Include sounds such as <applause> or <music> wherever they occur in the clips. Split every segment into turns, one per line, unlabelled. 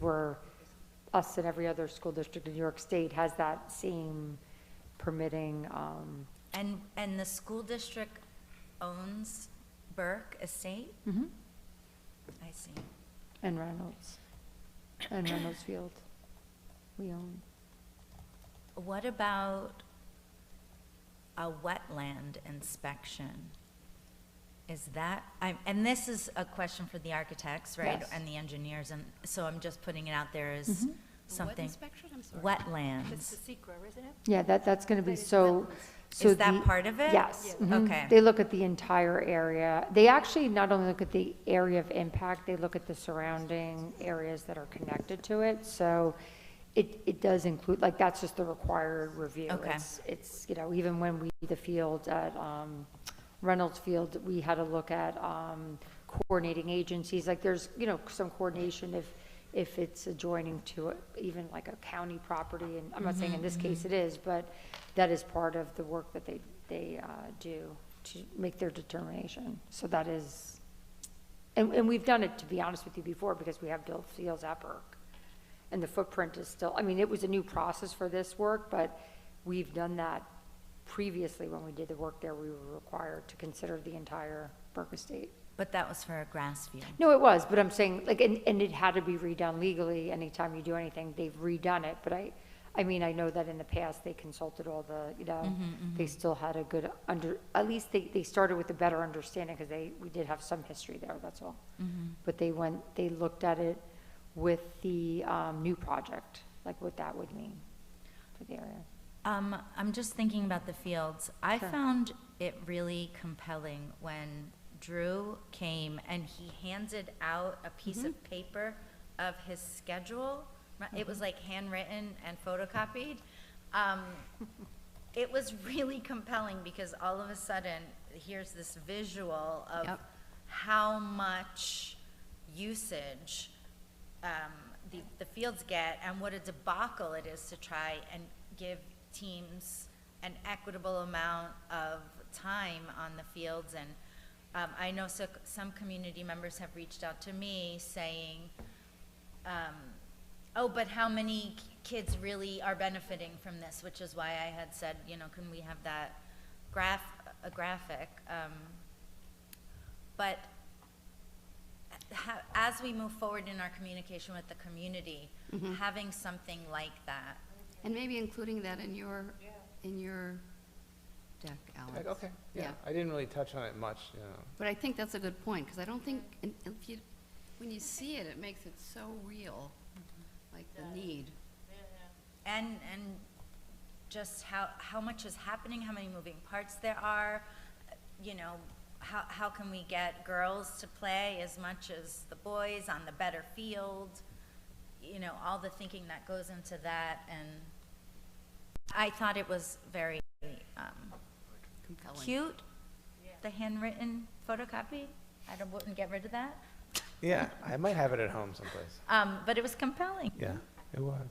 where us and every other school district in New York State has that same permitting, um,
And, and the school district owns Burke Estate?
Mm-hmm.
I see.
and Reynolds, and Reynolds Field. We own,
What about a wetland inspection? Is that, I'm, and this is a question for the architects, right?
Yes.
And the engineers, and so I'm just putting it out there as
What
something.
inspection, I'm sorry? It's
Wetlands.
the secret, isn't it?
yeah, that, that's gonna be
But it's
so,
wetlands.
so.
Is that
the-
part of it?
Yes.
Yeah.
mhm.
Okay.
They look at the entire area. They actually not only look at the area of impact, they look at the surrounding areas that are connected to it. So it, it does include, like, that's just the required review.
Okay.
It's- It's, you know, even when we, the field at um, Reynolds Field, we had to look at um, coordinating agencies. Like, there's, you know, some coordination if, if it's adjoining to a- even like a county property. And I'm not saying in this case it is, but that is part of the work that they, they uh, do to make their determination. So that is, and, and we've done it, to be honest with you, before, because we have built fields at Burke. And the footprint is still, I mean, it was a new process for this work, but we've done that previously when we did the work there, we were required to consider the entire Burke estate.
But that was for a grass field.
No, it was, but I'm saying, like, and, and it had to be redone legally, anytime you do anything, they've redone it, but I, I mean, I know that in the past, they consulted all the, you know, they still had a good under, at least they, they started with a better understanding, because they, we did have some history there, that's all. But they went, they looked at it with the, um, new project, like what that would mean for the area.
Um, I'm just thinking about the fields. I
Sure.
found it really compelling when Drew came and he handed out a piece of paper of his schedule. It was like handwritten and photocopied. Um, it was really compelling because all of a sudden, here's this visual of
Yep.
how much usage um, the, the fields get and what a debacle it is to try and give teams an equitable amount of time on the fields. And um, I know so, some community members have reached out to me saying, um, oh, but how many k- kids really are benefiting from this? Which is why I had said, you know, can we have that graph, a graphic? Um, but ha- as we move forward in our communication with the community, having something like that,
And maybe including that in your, in your deck, Alex.
Okay, yeah,
Yeah.
I didn't really touch on it much, you know.
But I think that's a good point, because I don't think, in- if you, when you see it, it makes it so real, like the need.
and, and just how, how much is happening, how many moving parts there are, you know, how, how can we get girls to play as much as the boys on the better field? You know, all the thinking that goes into that, and I thought it was very, um,
Compelling.
cute, the handwritten photocopy. I don't- wouldn't get rid of that.
Yeah, I might have it at home someplace.
Um, but it was compelling.
Yeah, it was.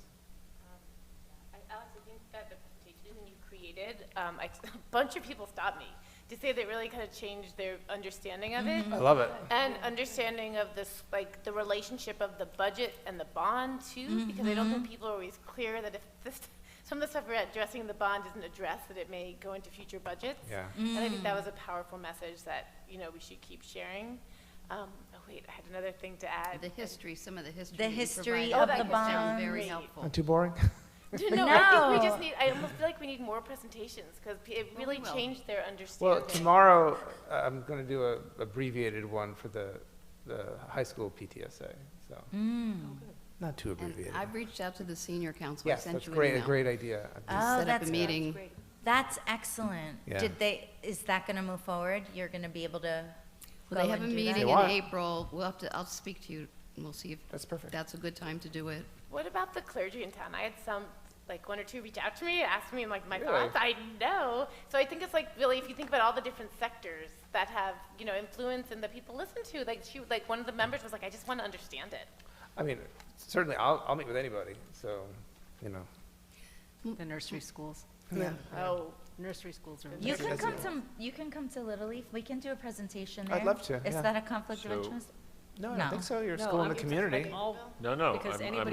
I- Alex, I think that the presentation you created, um, I, <laughs> a bunch of people stopped me to say that really kind of changed their understanding of it
I love it.
and understanding of this, like the relationship of the budget and the bond too, because I don't think people are always clear that if this, <laughs> some of the stuff we're addressing in the bond isn't addressed, that it may go into future budgets.
Yeah.
And I think that was a powerful message that you know we should keep sharing. Um, oh wait, I had another thing to add.
The history, some of the history.
The
you
history
provided
of the
was very- Very
bond.
helpful.
Not too
<laughs>
boring?
<laughs> No, I think we
No.
just need. I almost feel like we need more presentations because it
Well, we
really
will.
changed their understanding.
Well, tomorrow, uh, I'm gonna do a abbreviated one for the, the high school PTSA, so. Not too
Mm. And
abbreviated.
I've reached out to the senior council, I
Yes,
sent
that's
you an
great, a
email.
great idea.
Uh, Oh,
Set up a
that's-
meeting.
That's excellent.
Yeah.
Did they? Is that going to move forward? You're going to be able to.
Well, they
go
have a
and do
meeting
They
in
want-
April, we'll have to, I'll speak to you, and we'll see if
That's perfect.
that's a good time to do it.
What about the clergy in town? I had some, like one or two reach out to me, ask me like my
Really?
thoughts. I know. So I think it's like really, if you think about all the different sectors that have, you know, influence and that people listen to, like she, like one of the members was like, I just want to understand it.
I mean, certainly, I'll, I'll meet with anybody, so, you know.
The nursery schools.
Yeah.
Oh,
Nursery schools are.
You
That's-
can
that's
come
it.
to. You can come to Little Leaf. We can do a presentation there.
I'd love to,
Is
yeah.
that a conflict
So-
of interest?
No, I
No.
don't think so, you're a school in the community.
All
No, no.
Because
I'm- I'm
anybody